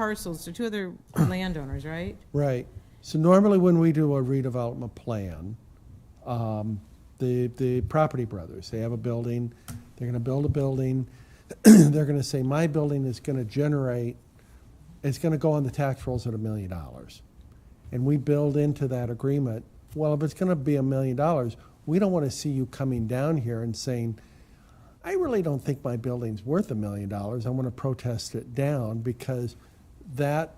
parcels, to two other landowners, right? Right. So normally when we do a redevelopment plan, um, the, the property brothers, they have a building, they're gonna build a building. They're gonna say, my building is gonna generate, it's gonna go on the tax rolls at a million dollars. And we build into that agreement, well, if it's gonna be a million dollars, we don't wanna see you coming down here and saying, I really don't think my building's worth a million dollars. I want to protest it down because that,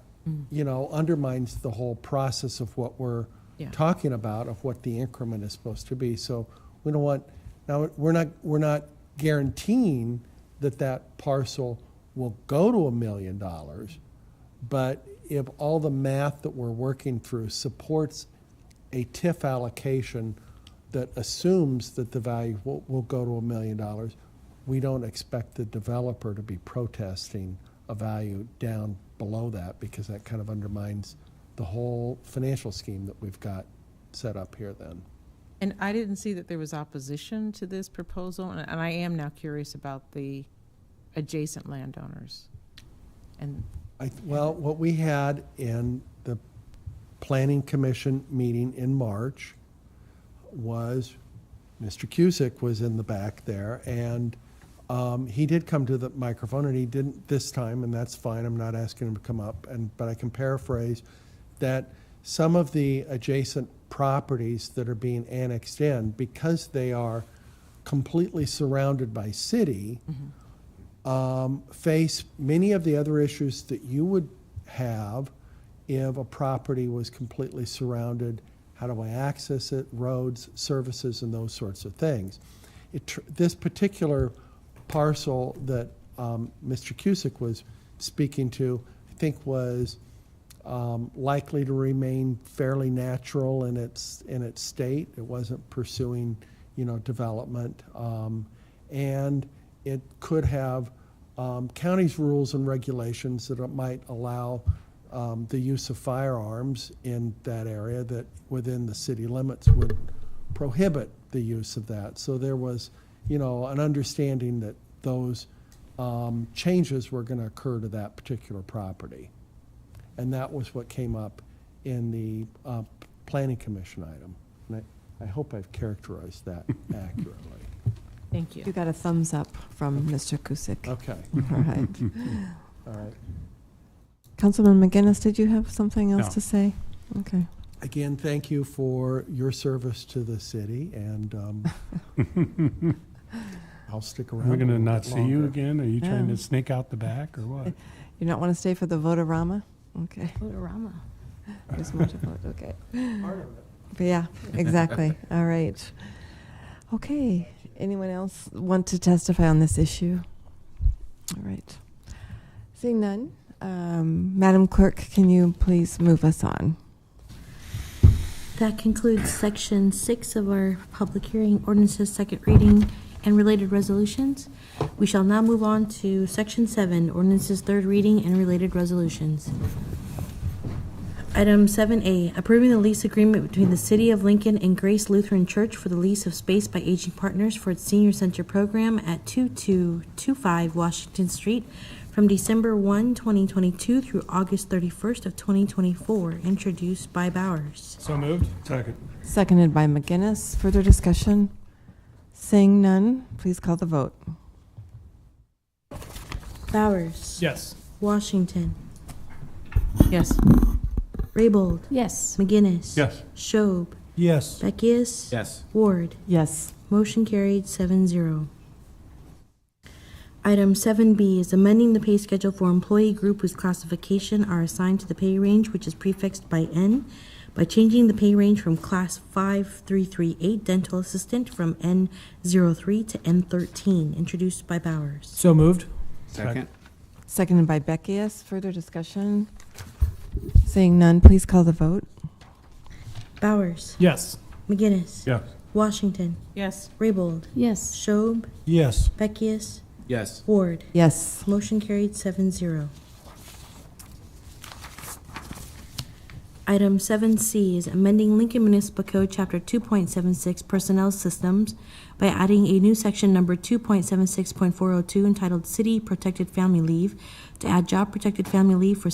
you know, undermines the whole process of what we're Yeah. talking about, of what the increment is supposed to be. So we don't want, now, we're not, we're not guaranteeing that that parcel will go to a million dollars. But if all the math that we're working through supports a TIF allocation that assumes that the value will, will go to a million dollars, we don't expect the developer to be protesting a value down below that because that kind of undermines the whole financial scheme that we've got set up here then. And I didn't see that there was opposition to this proposal, and and I am now curious about the adjacent landowners. And, I, well, what we had in the planning commission meeting in March was Mr. Cusick was in the back there and um, he did come to the microphone and he didn't this time and that's fine. I'm not asking him to come up and but I can paraphrase that some of the adjacent properties that are being annexed in because they are completely surrounded by city um, face many of the other issues that you would have if a property was completely surrounded. How do I access it? Roads, services, and those sorts of things. It, tr- this particular parcel that um, Mr. Cusick was speaking to, I think, was um, likely to remain fairly natural in its, in its state. It wasn't pursuing, you know, development. Um, And it could have um, county's rules and regulations that it might allow um, the use of firearms in that area that within the city limits would prohibit the use of that. So there was, you know, an understanding that those um, changes were going to occur to that particular property. And that was what came up in the uh, planning commission item. And I, I hope I've characterized that accurately. thank You you. got a thumbs up from Mr. Kusick. All Okay, right. all right. Councilman McGinnis, did you have something No. else to say? Okay. Again, thank you for your service to the city and um, I'll stick around. We're a going to little not bit see you longer. again? Are you trying No. to sneak out the back or what? You not want to stay for the Votorama? Okay. Foodorama. There's more to vote, okay. But yeah, exactly. All right. Okay. Anyone else want to testify on this issue? All right. Seeing none, um, Madam Clerk, can you please move us on? That concludes section six of our public hearing, ordinances, second reading, and related resolutions. We shall now move on to section seven, ordinances, third reading, and related resolutions. Item seven A, approving the lease agreement between the City of Lincoln and Grace Lutheran Church for the lease of space by Aging Partners for its senior center program at two-two-two-five Washington Street from December 1, 2022, through August thirty-first of twenty twenty-four, introduced by Bowers. So moved. Second. Seconded by McGinnis. Further discussion? Seeing none, please call the vote. Bowers. Yes. Washington. Yes. Raybold. Yes. McGinnis. Yes. Schob. Yes. Beckius. Yes. Ward. Yes. Motion carried 7-0. Item seven B is amending the pay schedule for employee group whose classification are assigned to the pay range which is prefixed by N by changing the pay range from class five three three eight dental assistant from N 3 to N thirteen, introduced by Bowers. So moved. Second? Seconded by Beckius. Further discussion? Seeing none, please call the vote. Bowers. Yes. McGinnis. Yes. Washington. Yes. Raybold. Yes. Schob. Yes. Beckius. Yes. Ward. Yes. Motion carried seven zero. Item seven C is amending Lincoln Municipal Code, Chapter two point seven six Personnel Systems by adding a new section number two point seven six point four oh two entitled City Protected Family Leave to add Job Protected Family Leave for